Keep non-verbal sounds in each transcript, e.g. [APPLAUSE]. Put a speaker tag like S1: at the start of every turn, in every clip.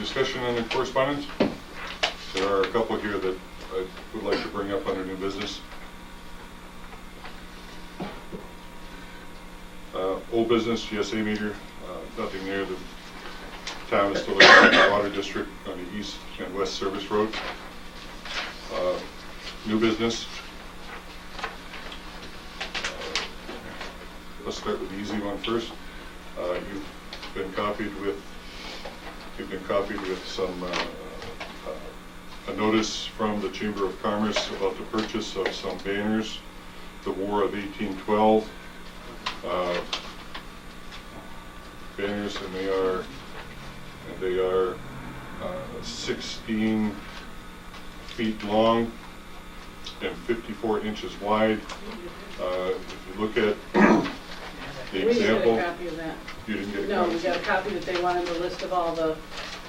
S1: discussion on the correspondence? There are a couple here that I would like to bring up under new business. Uh, Old business, GSA meter, uh, nothing there. The town is still looking at the water district on the east and west service road. Uh, New business. Uh, Let's start with the easy one first. Uh, You've been copied with, you've been copied with some, uh, uh, a notice from the Chamber of Commerce about the purchase of some banners, the War of 1812. uh, Banners, and they are, and they are uh, 16 feet long and 54 inches wide. Uh, If you look at the
S2: We didn't
S1: example.
S2: get a copy of that.
S1: You didn't get a
S2: No,
S1: copy?
S2: we got a copy that they wanted the list of all the,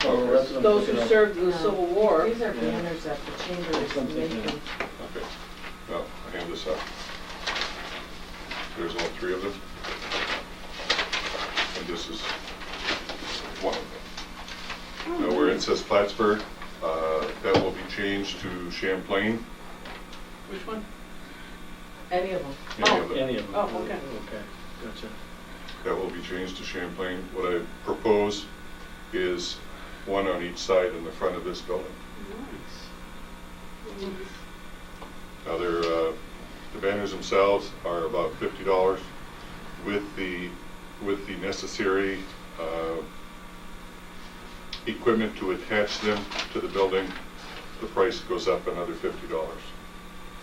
S1: Oh,
S3: that's what I'm
S2: those who
S3: thinking of.
S2: served in the Civil War.
S4: These are banners that the chamber
S3: That's what I'm
S4: is
S3: thinking of.
S4: making.
S1: Okay, well, I hand this up. There's all three of them. And this is one of them. Now, where it says Plattsburgh, uh, that will be changed to Champlain.
S2: Which one?
S4: Any of them.
S1: Any of them.
S3: Any of them?
S2: Oh, okay.
S3: Okay, gotcha.
S1: That will be changed to Champlain. What I propose is one on each side in the front of this building. Now, they're, uh, the banners themselves are about fifty dollars with the, with the necessary, uh, equipment to attach them to the building, the price goes up another fifty dollars.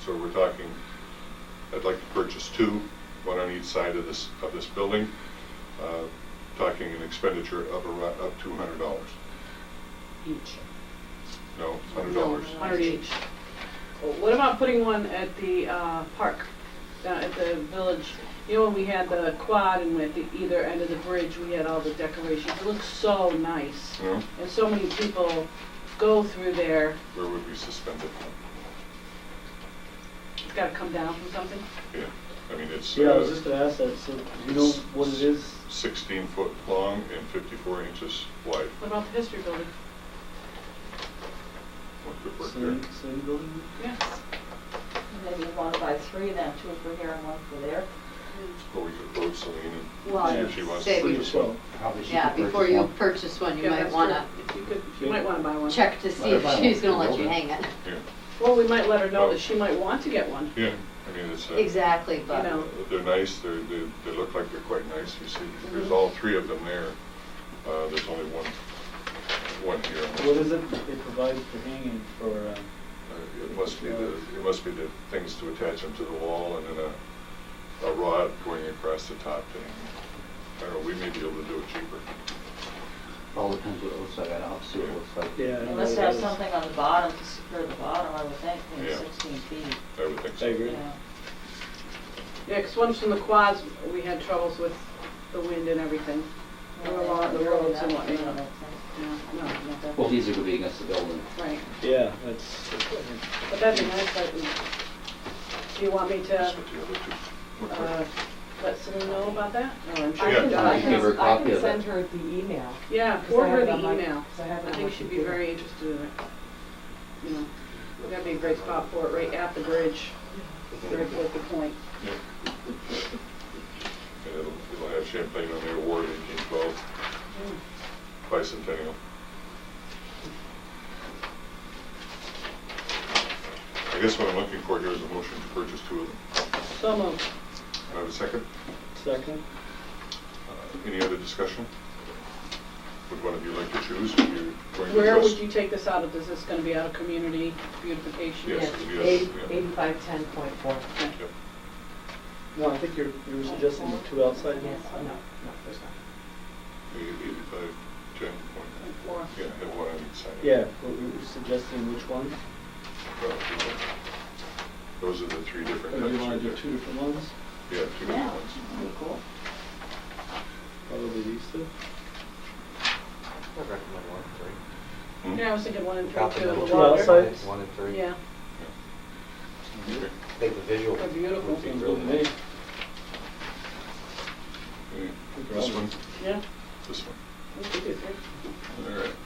S1: So we're talking, I'd like to purchase two, one on each side of this, of this building, uh, talking an expenditure of around, up to hundred dollars.
S2: Each.
S1: No, hundred dollars.
S2: No, Hundred each. Well, What about putting one at the uh, park, down at the village? You know, when we had the quad and at the either end of the bridge, we had all the decorations. It looked so nice.
S1: No,
S2: And so many people go through there.
S1: where would we suspend it?
S2: It's gotta come down from something.
S1: Yeah, I mean, it's.
S3: Yeah, I was
S1: uh,
S3: just gonna ask that, so do you know what it is?
S1: 16 foot long and 54 inches wide.
S2: What about the history building?
S1: What could work there?
S3: Same, same building?
S2: Yeah.
S4: Maybe one by three then, two for here and one for there.
S1: Or we could approach Celine
S5: Well,
S1: and see if she wants to
S5: say we-
S1: purchase one.
S5: Probably she Yeah, before you purchase one, you
S2: Yeah,
S5: might
S2: that's
S5: wanna
S2: true. If you could, you might wanna buy one.
S5: check to see
S3: Might
S5: if
S3: buy
S5: she's
S3: one.
S5: gonna let you hang it.
S1: Yeah,
S2: Well, we might let her know that she might want to get one.
S1: yeah, I mean, it's, uh,
S5: Exactly,
S2: You know.
S5: but
S1: they're nice, they're, they they look like they're quite nice, you see. There's all three of them there. Uh, There's only one, one here.
S3: What is it they provide for hanging for, um,
S1: Uh, It must be the, it must be the things to attach them to the wall and then a, a rod going across the top thing. I don't know, we may be able to do it cheaper.
S6: All depends what it looks like, I don't see what it looks like.
S3: yeah. I
S4: You
S3: don't
S4: must
S3: know what
S4: have
S3: it is.
S4: something on the bottom to secure the bottom, I would think, maybe
S1: Yeah.
S4: sixteen feet.
S1: I would think so.
S3: I agree.
S4: Yeah.
S2: Yeah, 'cause once in the quads, we had troubles with the wind and everything. There were a lot of the
S4: Really
S2: roads and
S4: not, you know,
S2: whatnot.
S4: that's-
S2: Yeah, no, not that.
S6: Well, these are gonna be against the building.
S2: Right,
S3: Yeah, that's, I
S2: but that'd be nice, that we, do you want me to,
S1: That's what the other two look like.
S2: uh, let someone know about that? Or I'm
S1: Yeah.
S2: sure she
S6: I
S2: does.
S6: can give her a
S4: I
S6: copy
S4: can
S6: of
S4: send
S6: it.
S4: her the email.
S2: Yeah,
S4: 'cause I
S2: forward
S4: have
S2: her
S4: it
S2: the
S4: on my-
S2: email.
S4: 'cause I have it
S2: I
S4: on
S2: think
S4: my
S2: she'd be
S4: computer.
S2: very interested in it, you know. That'd be a great spot for it, right at the bridge, right at the point. [LAUGHS]
S1: Yeah. And it'll, it'll have Champlain on there, War of eighteen twelve, bicentennial. I guess what I'm looking for here is a motion to purchase two of them.
S2: So moved.
S1: Do I have a second?
S3: second,
S1: Uh, Any other discussion? Would one of you like to choose? Are you going to
S2: Where would
S1: just-
S2: you take this out of? Is this gonna be out of community beautification?
S1: Yes,
S4: Yeah,
S1: yes,
S4: eight-
S1: yeah.
S4: Eighty-five, ten point four.
S2: Okay.
S1: Yep.
S3: no, I think you're, you were suggesting the two outside ones?
S4: Yes, no, no, there's not.
S1: Eight- Eighty-five, ten point,
S2: Four.
S1: yeah, and one on each side.
S3: Yeah, but we were suggesting which one?
S1: Well, if you want. Those are the three different
S3: Or do
S1: types
S3: Oh, you wanna
S1: right
S3: do
S1: there.
S3: two different ones?
S1: Yeah, two different
S4: Yeah,
S1: ones.
S4: that'd be cool.
S3: Probably these two.
S7: I recommend one and three.
S1: Hmm?
S2: Yeah, I was thinking one and
S7: Copy
S2: three, two
S7: number
S2: of
S3: two
S2: the water.
S3: outside.
S7: One and three.
S2: Yeah,
S1: Okay.
S7: I think the visual.
S2: They're beautiful.
S7: would be
S3: Sounds
S7: really
S3: good to me.
S7: nice.
S1: Okay. This one,
S2: yeah.
S1: this one.
S2: We could do three.
S1: All right.